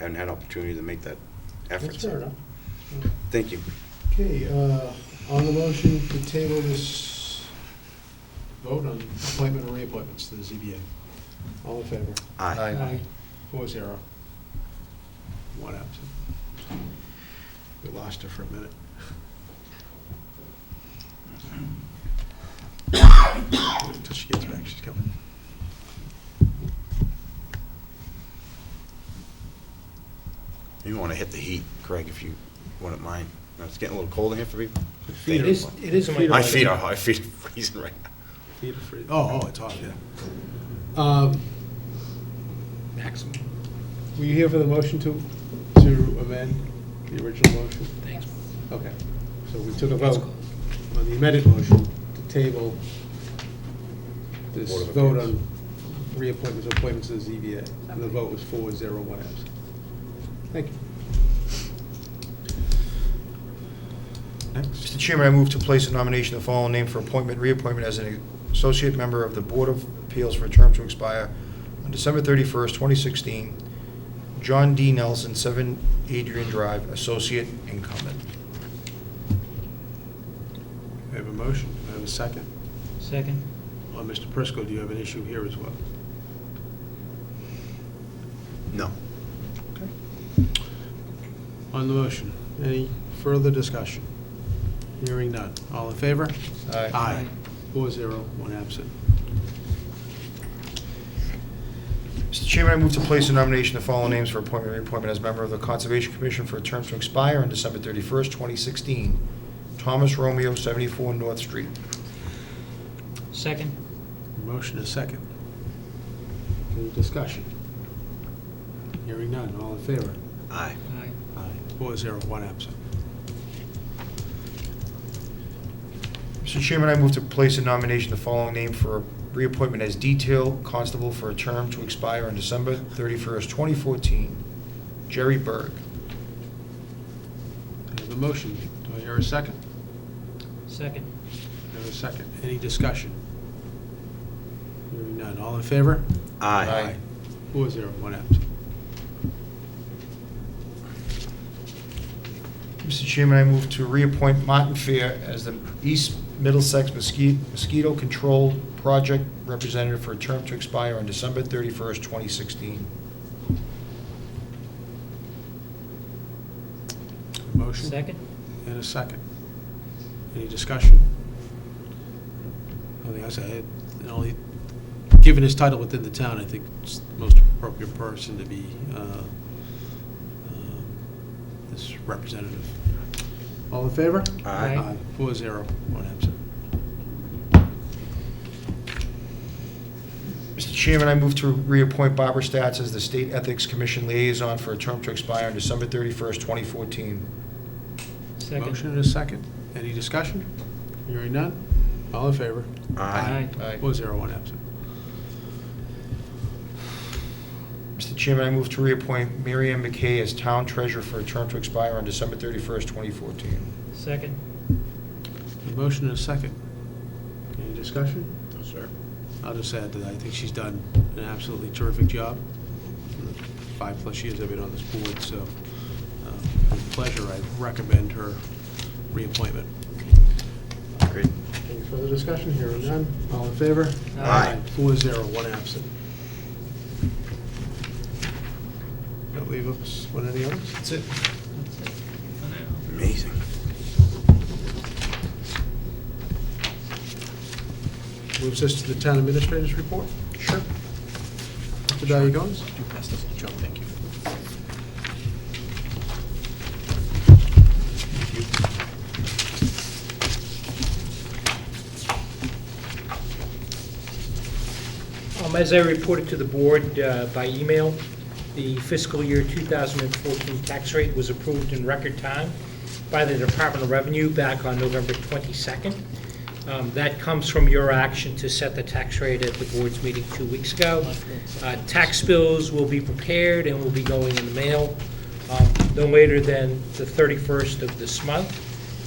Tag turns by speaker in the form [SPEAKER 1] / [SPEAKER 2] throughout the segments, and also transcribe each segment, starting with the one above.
[SPEAKER 1] haven't had opportunity to make that effort.
[SPEAKER 2] That's fair enough.
[SPEAKER 1] Thank you.
[SPEAKER 2] Okay, uh, on the motion to table this vote on appointment or reappointments to the ZBA. All in favor?
[SPEAKER 1] Aye.
[SPEAKER 2] Four zero. One absent. We lost her for a minute. Wait Until she gets back, she's coming.
[SPEAKER 1] You want to hit the heat, Craig, if you wouldn't mind. Now, It's getting a little cold in here for me.
[SPEAKER 2] Feet
[SPEAKER 3] It is, it is.
[SPEAKER 2] Feet are-
[SPEAKER 1] My feet are, my feet are freezing right now.
[SPEAKER 2] Feet are free. Oh, oh, it's off, yeah. Um,
[SPEAKER 3] Maximum.
[SPEAKER 2] Were you here for the motion to, to amend the original motion?
[SPEAKER 3] Thanks.
[SPEAKER 2] Okay, so we took a vote on the amended motion to table this
[SPEAKER 1] Board of
[SPEAKER 2] vote on
[SPEAKER 1] Appeals.
[SPEAKER 2] reappointments, appointments to the ZBA. And the vote was four, zero, one absent. Thank you.
[SPEAKER 4] Mr. Chairman, I move to place a nomination of the following name for appointment, reappointment as an associate member of the Board of Appeals for a term to expire on December 31st, 2016. John D. Nelson, 7 Adrian Drive, associate incumbent.
[SPEAKER 2] I have a motion, I have a second.
[SPEAKER 3] Second.
[SPEAKER 2] Well, Mr. Prisco, do you have an issue here as well?
[SPEAKER 1] No.
[SPEAKER 2] Okay. On the motion, any further discussion? Hearing none. All in favor?
[SPEAKER 4] Aye.
[SPEAKER 2] Aye. Four zero, one absent.
[SPEAKER 4] Mr. Chairman, I move to place a nomination of the following names for appointment, reappointment as member of the Conservation Commission for a term to expire on December 31st, 2016. Thomas Romeo, 74 North Street.
[SPEAKER 3] Second.
[SPEAKER 2] Motion is second. Any discussion? Hearing none, all in favor?
[SPEAKER 1] Aye.
[SPEAKER 3] Aye.
[SPEAKER 2] Aye. Four zero, one absent.
[SPEAKER 4] Mr. Chairman, I move to place a nomination, the following name for reappointment as detail constable for a term to expire on December 31st, 2014. Jerry Berg.
[SPEAKER 2] I have a motion, do I hear a second?
[SPEAKER 3] Second.
[SPEAKER 2] I have a second, any discussion? Hearing none, all in favor?
[SPEAKER 1] Aye.
[SPEAKER 2] Four zero, one absent.
[SPEAKER 4] Mr. Chairman, I move to reappoint Martin Fair as the East Middlesex Mosquito Mosquito Control Project Representative for a term to expire on December 31st, 2016.
[SPEAKER 2] Motion?
[SPEAKER 3] Second.
[SPEAKER 2] And a second. Any discussion? I think I said, and only, given his title within the town, I think it's the most appropriate person to be uh, um, this representative. All in favor?
[SPEAKER 3] Aye.
[SPEAKER 2] Four zero, one absent.
[SPEAKER 4] Mr. Chairman, I move to reappoint Barbara Stats as the State Ethics Commission Liaison for a term to expire on December 31st, 2014.
[SPEAKER 3] Second.
[SPEAKER 2] Motion and a second. Any discussion? Hearing none? All in favor?
[SPEAKER 3] Aye.
[SPEAKER 4] Aye.
[SPEAKER 2] Four zero, one absent.
[SPEAKER 4] Mr. Chairman, I move to reappoint Mary Ann McKay as Town Treasurer for a term to expire on December 31st, 2014.
[SPEAKER 3] Second.
[SPEAKER 2] A motion and a second. Any discussion?
[SPEAKER 1] No, sir.
[SPEAKER 2] I'll just add that I think she's done an absolutely terrific job. in the Five-plus years I've been on this board, so uh, with pleasure, I recommend her reappointment.
[SPEAKER 1] Great.
[SPEAKER 2] Any further discussion? Here and none. All in favor?
[SPEAKER 3] Aye.
[SPEAKER 2] Four zero, one absent. Don't leave us with any others?
[SPEAKER 4] That's it.
[SPEAKER 1] Amazing.
[SPEAKER 2] Moves us to the town administrator's report.
[SPEAKER 4] Sure.
[SPEAKER 2] Mr. Valley-Gomes?
[SPEAKER 3] You passed us, Joe, thank you. Um, As I reported to the board uh, by email, the fiscal year 2014 tax rate was approved in record time by the Department of Revenue back on November 22nd. Um, That comes from your action to set the tax rate at the board's meeting two weeks ago. Uh, Tax bills will be prepared and will be going in the mail um, no later than the 31st of this month.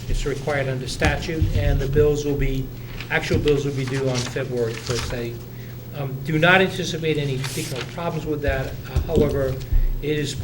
[SPEAKER 3] It's required under statute, and the bills will be, actual bills will be due on February 1st. They um, Do not anticipate any particular problems with that. Uh, However, it is